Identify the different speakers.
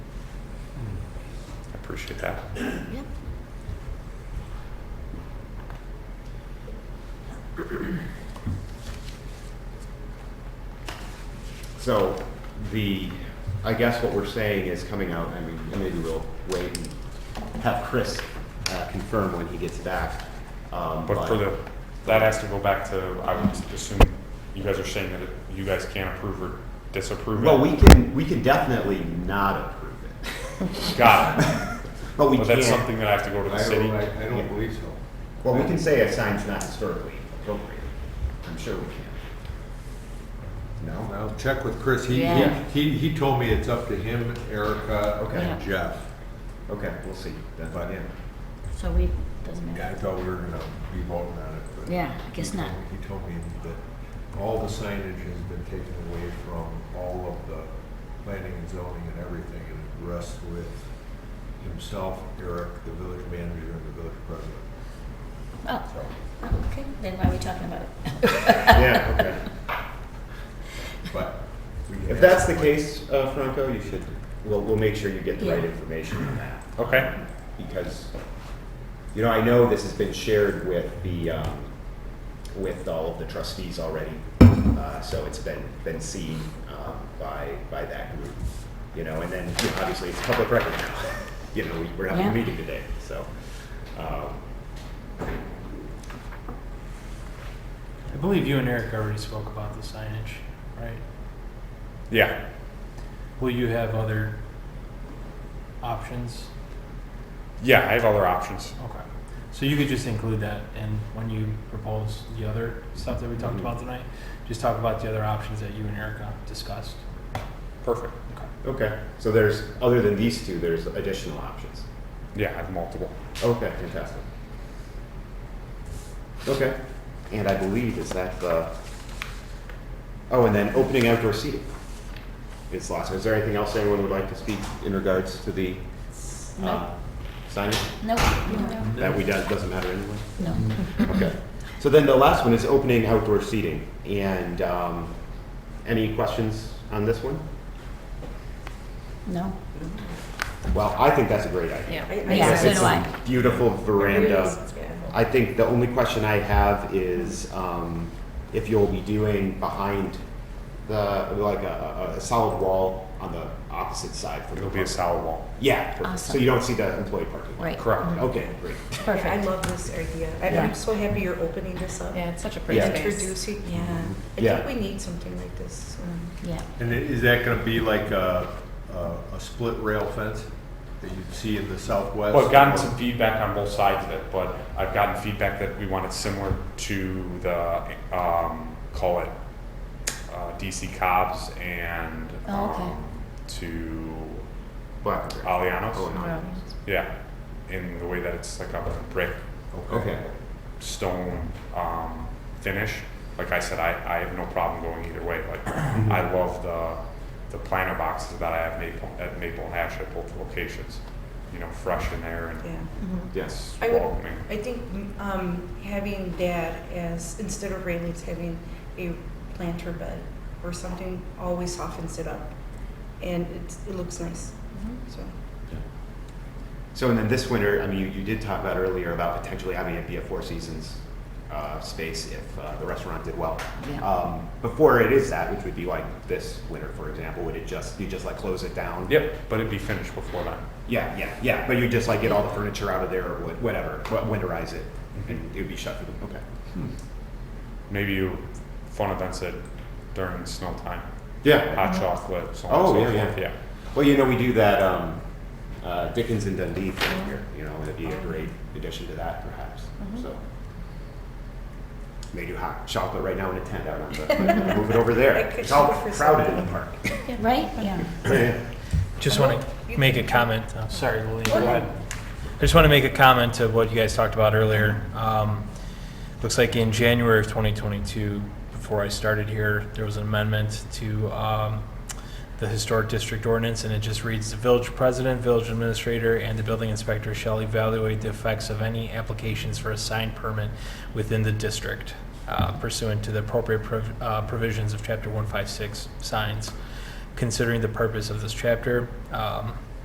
Speaker 1: appreciate that.
Speaker 2: Yep.
Speaker 3: So the, I guess what we're saying is coming out, I mean, and maybe we'll wait and have Chris uh, confirm when he gets back. um,
Speaker 1: But for the, that has to go back to, I would assume you guys are saying that you guys can't approve or disapprove it.
Speaker 3: Well, we can, we can definitely not approve it,
Speaker 1: Got it.
Speaker 3: but we
Speaker 1: But that's
Speaker 3: can,
Speaker 1: something that I have to go to the
Speaker 4: I
Speaker 1: city.
Speaker 4: don't, I I
Speaker 3: Yeah.
Speaker 4: don't believe so.
Speaker 3: well, we can say a sign's not historically appropriate. I'm sure we can. No?
Speaker 4: I'll check with Chris. He,
Speaker 2: Yeah.
Speaker 4: he, he- he told me it's up to him, Erica,
Speaker 3: Okay.
Speaker 4: and Jeff.
Speaker 3: Okay, we'll see. That's
Speaker 4: But-
Speaker 3: yeah.
Speaker 2: So we, doesn't
Speaker 4: I
Speaker 2: matter.
Speaker 4: thought we were gonna be voting on it, but.
Speaker 2: Yeah, I guess not.
Speaker 4: He told me that all the signage has been taken away from all of the planning and zoning and everything, and it rests with himself, Eric, the village manager, and the village president.
Speaker 2: Oh,
Speaker 4: So,
Speaker 2: oh, okay, then why are we talking about it?
Speaker 3: Yeah, okay.
Speaker 4: but. we can
Speaker 3: If
Speaker 4: ask
Speaker 3: that's the
Speaker 4: him.
Speaker 3: case, uh, Franco, you should, we'll, we'll make sure you get the right
Speaker 2: Yeah.
Speaker 3: information on that.
Speaker 1: Okay.
Speaker 3: Because, you know, I know this has been shared with the, um, with all of the trustees already. Uh, so it's been, been seen, um, by, by that group, you know, and then you know, obviously it's public record now. You know, we- we're having
Speaker 2: Yeah.
Speaker 3: a meeting today, so, um,
Speaker 5: I believe you and Eric already spoke about the signage, right?
Speaker 1: Yeah.
Speaker 5: Will you have other options?
Speaker 1: Yeah, I have other options.
Speaker 5: Okay. So you could just include that in when you propose the other stuff that we talked about tonight? Just talk about the other options that you and Erica discussed?
Speaker 1: Perfect.
Speaker 5: Okay.
Speaker 3: okay. So there's, other than these two, there's additional options.
Speaker 1: Yeah, I have multiple.
Speaker 3: Okay, fantastic. Okay. And I believe is that the, oh, and then opening outdoor seating. It's lots. Is there anything else anyone would like to speak in regards to the uh,
Speaker 2: No,
Speaker 3: signage?
Speaker 2: no, no,
Speaker 3: That we, that doesn't matter anyway?
Speaker 2: no.
Speaker 3: Okay. So then the last one is opening outdoor seating. And um, any questions on this one?
Speaker 2: No.
Speaker 3: Well, I think that's a great idea.
Speaker 2: Yeah,
Speaker 3: Yes,
Speaker 2: so
Speaker 3: it's
Speaker 2: do
Speaker 3: a
Speaker 2: I.
Speaker 3: Beautiful veranda. I think the only question I have is um, if you'll be doing behind the, like a, a- a solid wall on the opposite side from the.
Speaker 1: It'll be a
Speaker 3: front.
Speaker 1: solid wall.
Speaker 3: Yeah, perfect. so
Speaker 2: Awesome.
Speaker 3: you don't see the employee parking lot.
Speaker 2: Right. Mm-hmm.
Speaker 1: Correct.
Speaker 3: Okay, great.
Speaker 2: Perfect.
Speaker 6: I love this idea. I-
Speaker 3: Yeah.
Speaker 6: I'm so happy you're opening this up.
Speaker 7: Yeah, it's such a pretty
Speaker 3: Yeah.
Speaker 7: space.
Speaker 6: Introducing, yeah. I
Speaker 3: Yeah.
Speaker 6: think we need something like this. um,
Speaker 2: Yeah,
Speaker 4: And i- is that gonna be like a, a, a split rail fence that you'd see in the southwest?
Speaker 1: Well, I've gotten some feedback on both sides of it, but I've gotten feedback that we want it similar to the, um, call it, uh, DC Cobb's and,
Speaker 2: Oh, okay.
Speaker 1: um, to
Speaker 3: Black.
Speaker 1: Alianos.
Speaker 3: Oh,
Speaker 1: Yeah, in the way that it's like a brick
Speaker 3: no. Okay,
Speaker 1: stone um, finish. Like I said, I, I have no problem going either way. Like I love the the planter boxes that I have maple at Maple and Ash at both locations. You know, fresh in there and
Speaker 6: Yeah.
Speaker 2: Mm-hmm.
Speaker 3: yes.
Speaker 6: I would-
Speaker 1: welcoming.
Speaker 6: I think um, having that as, instead of railings, having a planter bed or something always softens it up. And it's, it looks nice, so.
Speaker 3: So and then this winter, I mean, you, you did talk about earlier about potentially having it be a Four Seasons uh, space if uh, the restaurant did well.
Speaker 2: Yeah.
Speaker 3: Um, before it is that, which would be like this winter, for example, would it just you just like close it down?
Speaker 1: Yep, but it'd be finished before then.
Speaker 3: Yeah, yeah, yeah. But you just like get all the furniture out of there or what, whatever, wha- winterize it, and it would be shut for the okay.
Speaker 1: Maybe you fun events it during snow time.
Speaker 3: Yeah.
Speaker 6: Mm-hmm.
Speaker 1: Hot chocolate, so on
Speaker 3: Oh,
Speaker 1: and so
Speaker 3: yeah,
Speaker 1: forth.
Speaker 3: yeah.
Speaker 1: yeah.
Speaker 3: Well, you know, we do that um, uh, Dickens and Dundee thing here. You know, it'd be a great addition to that, perhaps.
Speaker 6: Mm-hmm.
Speaker 3: So. They do hot chocolate right now in a tent out on the. move it over there.
Speaker 6: That could
Speaker 3: It's all
Speaker 6: go for
Speaker 3: crowded in
Speaker 6: something.
Speaker 3: the park.
Speaker 2: right, yeah.
Speaker 5: Just want to make a comment. I'm sorry, Lily. Go
Speaker 6: Go ahead.
Speaker 5: ahead. I just want to make a comment to what you guys talked about earlier. Um, looks like in January of 2022, before I started here, there was an amendment to um, the historic district ordinance, and it just reads: "The village president, village administrator, and the building inspector shall evaluate the effects of any applications for a sign permit within the district uh, pursuant to the appropriate prov- uh, provisions of Chapter 156 signs." considering the purpose of this chapter. Um,